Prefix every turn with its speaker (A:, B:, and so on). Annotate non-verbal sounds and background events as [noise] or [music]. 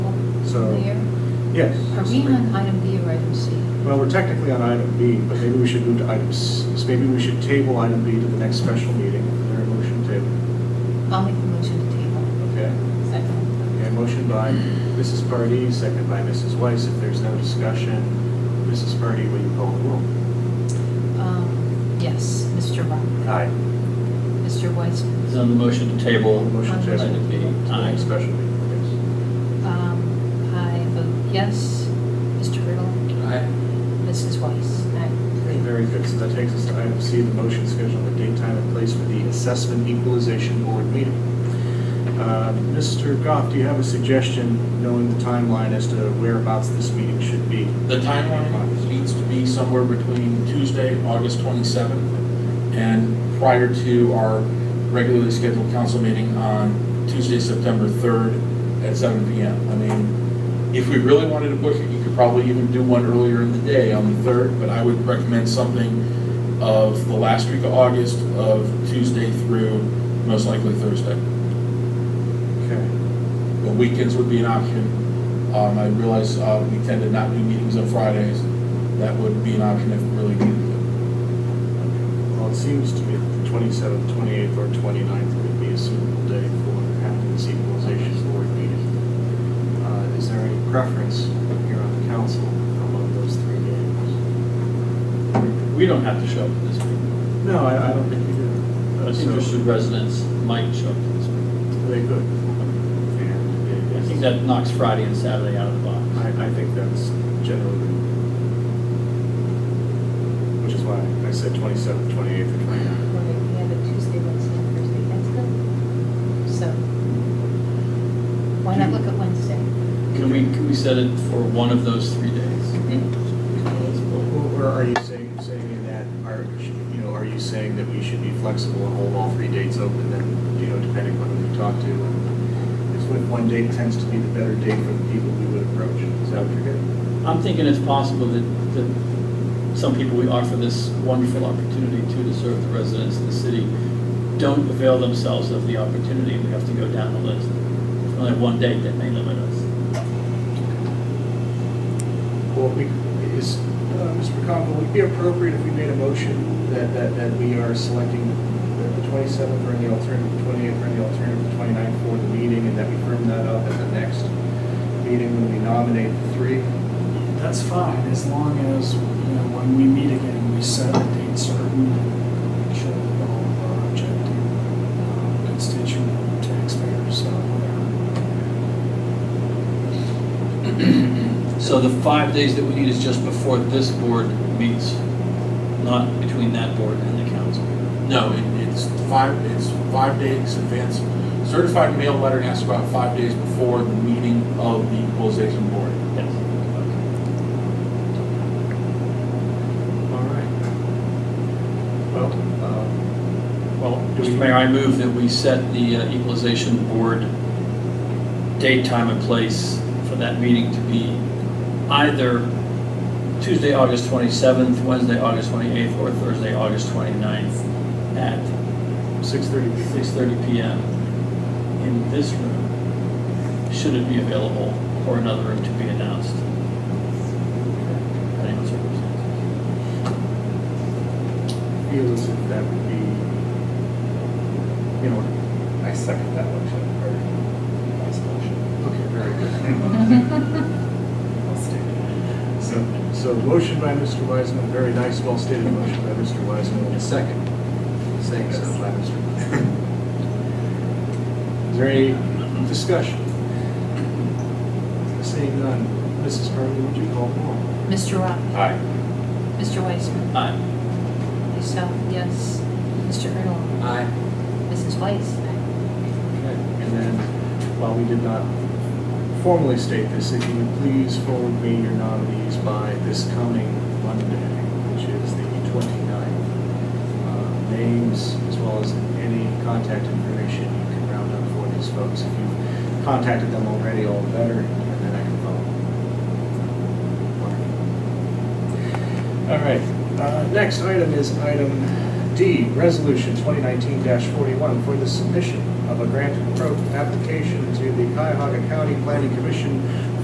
A: So-
B: clear?
A: Yes.
B: Are we on item B or item C?
A: Well, we're technically on item B, but maybe we should move to item C. So maybe we should table item B to the next special meeting. Is there a motion table?
B: I'll make the motion to table.
A: Okay.
B: Second.
A: Okay, motion by Mrs. Pardee, second by Mrs. Weiss. If there's no discussion, Mrs. Pardee, will you call the roll?
B: Um, Yes, Mr. Rock.
A: Aye.
B: Mr. Weissman.
C: Is on the motion to table.
A: Motion table.
C: Item B.
A: To the next special meeting,
B: Um, I vote yes. Mr. Riddle.
C: Aye.
B: Mrs. Weiss.
A: yes. Okay, very good. So that takes us to item C, the motion schedule the date, time, and place for the Assessment Equalization Board meeting. Uh, Mr. Goff, do you have a suggestion, knowing the timeline, as to whereabouts this meeting should be?
D: The timeline needs to be somewhere between Tuesday, August 27th, and prior to our regularly scheduled council meeting on Tuesday, September 3rd at 7 PM. I mean, if we really wanted to push it, you could probably even do one earlier in the day on the 3rd, but I would recommend something of the last week of August, of Tuesday through most likely Thursday.
A: Okay.
D: But weekends would be an option. Um, I realize, uh, we tend to not do meetings on Fridays. That would be an option if we really needed
A: Well, it seems to me that the 27th, 28th, or 29th would be a suitable day for having this equalization board meeting. Uh, Is there any preference here on the council among those three games?
C: We don't have to show up to this meeting.
A: No, I I don't think you do. Uh, so-
C: Interested residents might show up to this meeting.
A: They could. And
C: I think that knocks Friday and Saturday out of the box.
A: I, I think that's generally, which is why I said 27th, 28th, or 29th.
B: We have a Tuesday, Wednesday, and Thursday. That's good. So why not look at
A: [laughs]
B: Wednesday?
C: Can we, can we set it for one of those three days?
A: Or are you saying, saying in that, are, you know, are you saying that we should be flexible and hold all three dates open then, you know, depending on who we talk to? and If one- one date tends to be the better date for the people we would approach, is that what you're getting?
C: I'm thinking it's possible that, that some people we offer this wonderful opportunity to, to serve the residents of the city, don't avail themselves of the opportunity, we have to go down the list. If Only one date that may limit us.
A: Well, we, is, uh, Mr. McConville, would it be appropriate if we made a motion that, that, that we are selecting the- the twenty-seventh or the alternative, twenty-eighth or the alternative, twenty-ninth for the meeting, and that we firm that up at the next meeting when we nominate the three?
E: That's fine, as long as, you know, when we meet again, we set a date certain and make sure that all of our objective uh, constituent taxpayers uh, are aware.
C: So the five days that we need is just before this board meets, not between that board and the council.
D: to. No, it, it's five, it's five days advance. Certified mail letter has about five days before the meeting of the equalization board.
C: Yes.
A: All right. Well, um,
C: uh, Well, Mr. Mayor, I move that we set the uh, equalization board date, time, and place for that meeting to be either Tuesday, August 27th, Wednesday, August 28th, or Thursday, August 29th at
A: 6:30 p.m.
C: 6:30 PM in this room, should it be available, or another room to be announced. Depending on circumstances.
A: feel as if that would be, you know. I second that motion, or vice motion. Okay, very [laughs] good. So, so motion by Mr. Wiseman, very nice, well stated motion by Mr. Wiseman, and a second, saying so by Mr. Wiseman. Is there any discussion? Seeing none, Mrs. Purley, would you call the roll?
B: Mr. Rock.
D: Aye.
B: Mr. Weissman.
C: Aye.
B: Myself, yes. Mr. Riddle.
D: Aye.
B: Mrs. Weiss.
A: And then, while we did not formally state this, if you would please forward me your nominees by this coming Monday, which is the 29th. Uh, Names, as well as any contact information you can round up for these folks. If you've contacted them already, all the better, and then I can follow. Wonderful. All right, uh, next item is item D, Resolution 2019-41 for the submission of a grant pro- application to the Cuyahoga County Planning Commission